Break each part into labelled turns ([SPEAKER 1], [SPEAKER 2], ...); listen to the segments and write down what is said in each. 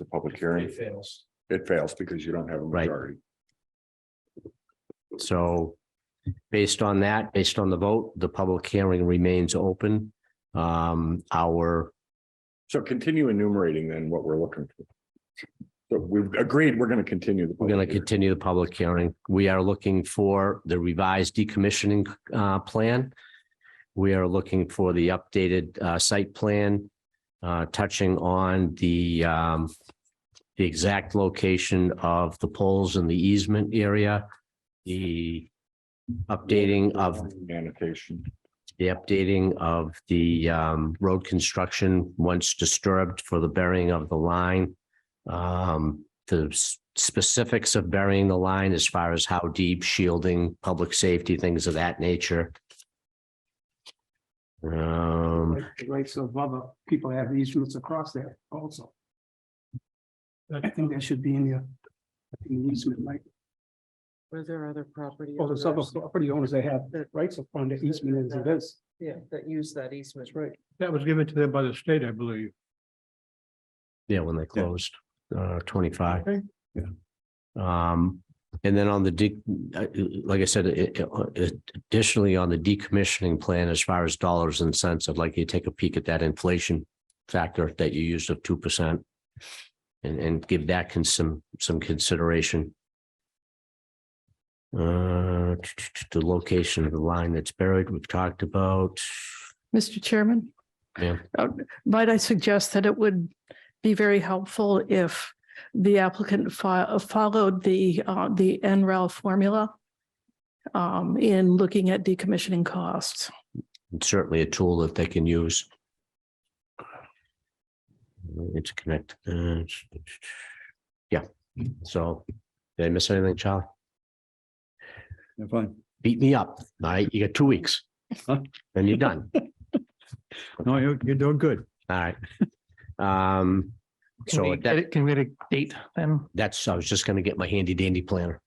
[SPEAKER 1] the public hearing,
[SPEAKER 2] It fails.
[SPEAKER 1] it fails because you don't have a
[SPEAKER 3] Right.
[SPEAKER 1] majority.
[SPEAKER 3] So based on that, based on the vote, the public hearing remains open. Um, our,
[SPEAKER 1] So continue enumerating then what we're looking for. So we've agreed, we're gonna continue. the
[SPEAKER 3] we're going
[SPEAKER 1] public
[SPEAKER 3] to
[SPEAKER 1] hearing.
[SPEAKER 3] continue the public hearing. We are looking for the revised decommissioning uh plan. We are looking for the updated uh site plan uh touching on the um the exact location of the poles in the easement area, the updating of
[SPEAKER 1] Annotation.
[SPEAKER 3] the updating of the um road construction once disturbed for the burying of the line. Um, the s- specifics of burying the line as far as how deep shielding, public safety, things of that nature. Um,
[SPEAKER 4] like the rights of other people have easements across there also. I think that should be in your, in the easement, like,
[SPEAKER 5] Were there other property?
[SPEAKER 4] all those other
[SPEAKER 5] owners
[SPEAKER 4] property owners, they have rights upon the easement as it is.
[SPEAKER 5] Yeah, that use that easement.
[SPEAKER 4] right.
[SPEAKER 6] That was given to them by the state, I believe.
[SPEAKER 3] yeah, when they closed, uh, twenty-five.
[SPEAKER 6] Okay.
[SPEAKER 3] Um, and then on the de, uh, like I said, it- it- additionally on the decommissioning plan, as far as dollars and cents, I'd like you to take a peek at that inflation factor that you used of two percent. And, and give that con some, some consideration. Uh, the location of the line that's buried, we've talked about.
[SPEAKER 7] Mr. Chairman?
[SPEAKER 3] Ma'am.
[SPEAKER 7] Uh, Might I suggest that it would be very helpful if the applicant fo- followed the, uh, the NREL formula um, in looking at decommissioning costs?
[SPEAKER 3] It's certainly a tool that they can use. Interconnect. uh, Yeah, so did I miss anything, Charlie?
[SPEAKER 2] You're fine.
[SPEAKER 3] Beat me up. All right, you got two weeks.
[SPEAKER 2] Huh?
[SPEAKER 3] Then you're done.
[SPEAKER 2] No, you're, you're doing good.
[SPEAKER 3] All right. Um,
[SPEAKER 6] Can
[SPEAKER 3] so
[SPEAKER 6] we get
[SPEAKER 3] that,
[SPEAKER 6] it- can we get a date then?
[SPEAKER 3] that's, I was just gonna get my handy dandy planner.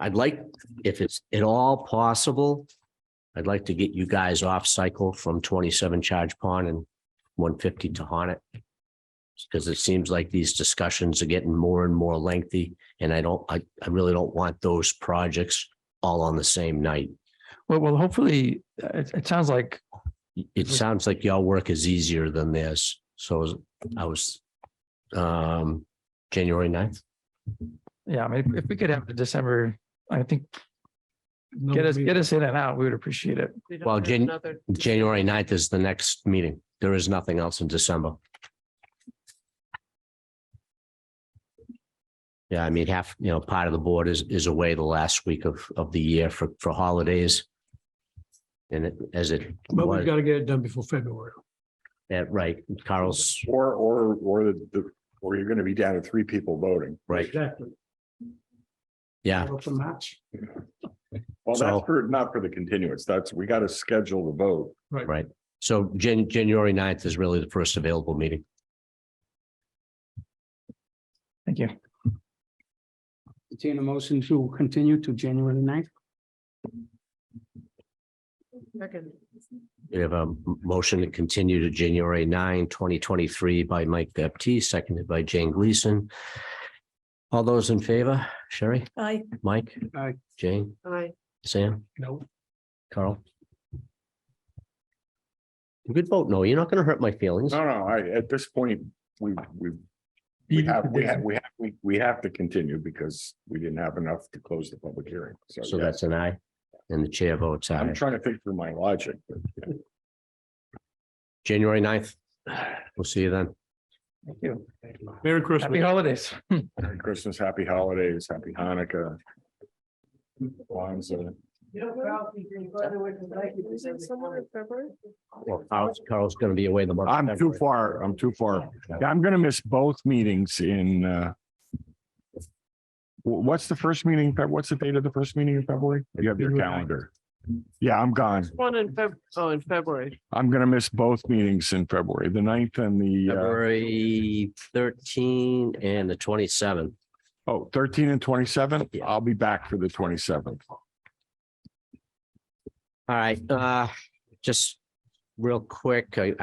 [SPEAKER 3] I'd like, if it's at all possible, I'd like to get you guys off cycle from twenty-seven Charge Pond and one fifty to Honnet. Because it seems like these discussions are getting more and more lengthy, and I don't, I, I really don't want those projects all on the same night.
[SPEAKER 6] Well, well, hopefully, uh, it, it sounds like,
[SPEAKER 3] It sounds like y'all work is easier than this, so I was, um, January 9th.
[SPEAKER 6] yeah, I mean, if we could have the December, I think, get us, get us in and out, we would appreciate it.
[SPEAKER 5] We don't
[SPEAKER 3] Well,
[SPEAKER 5] have
[SPEAKER 3] Jan-
[SPEAKER 5] another-
[SPEAKER 3] January 9th is the next meeting. There is nothing else in December. Yeah, I mean, half, you know, part of the board is, is away the last week of, of the year for, for holidays. And it- as it, was-
[SPEAKER 6] to get it done before February.
[SPEAKER 3] yeah, right, Carl's,
[SPEAKER 1] Or, or, or the- the, or you're gonna be down to three people voting.
[SPEAKER 3] right,
[SPEAKER 4] Exactly.
[SPEAKER 3] yeah.
[SPEAKER 4] Up to March.
[SPEAKER 1] Well,
[SPEAKER 3] So-
[SPEAKER 1] that's for, not for the continuance. That's, we gotta schedule the vote.
[SPEAKER 3] Right. So Jan- January 9th is really the first available meeting.
[SPEAKER 6] Thank you.
[SPEAKER 4] Entertain a motion to continue to January 9th.
[SPEAKER 3] We have a m- motion to continue to January 9, 2023 by Mike Baptiste, seconded by Jane Gleason. All those in favor, Sherry,
[SPEAKER 7] I,
[SPEAKER 3] Mike,
[SPEAKER 4] Aye.
[SPEAKER 3] Jane,
[SPEAKER 5] Aye.
[SPEAKER 3] Sam,
[SPEAKER 4] Uh, No.
[SPEAKER 3] Carl? Good vote, no, you're not going to hurt my feelings.
[SPEAKER 1] No, no, I, at this point, we, we, we have, we have, we have, we, we have to continue because we didn't have enough to close the public hearing.
[SPEAKER 3] So
[SPEAKER 1] yes.
[SPEAKER 3] that's an aye. And the chair votes
[SPEAKER 1] I'm
[SPEAKER 3] aye.
[SPEAKER 1] trying to think through my logic, but yeah.
[SPEAKER 3] January 9th. We'll see you then.
[SPEAKER 6] Thank you.
[SPEAKER 2] Merry
[SPEAKER 6] Happy
[SPEAKER 2] Christmas.
[SPEAKER 6] holidays.
[SPEAKER 1] Merry Christmas, happy holidays, happy Hanukkah. Kwanzaa.
[SPEAKER 5] Isn't someone in February?
[SPEAKER 3] Well, Carl's, Carl's going to be away the month. of
[SPEAKER 1] I'm too
[SPEAKER 3] February.
[SPEAKER 1] far, I'm too far. Yeah, I'm gonna miss both meetings in, uh. wh- What's the first meeting, in Feb- what's the date of the first meeting in February? You have your calendar. Yeah, I'm gone.
[SPEAKER 5] One in Feb, oh, in February.
[SPEAKER 1] I'm gonna miss both meetings in February, the ninth and the, uh,
[SPEAKER 3] February 13 and the 27th.
[SPEAKER 1] uh, oh, 13 and twenty-seven. I'll be back for the twenty-seventh.
[SPEAKER 3] All right, uh, just real quick, I,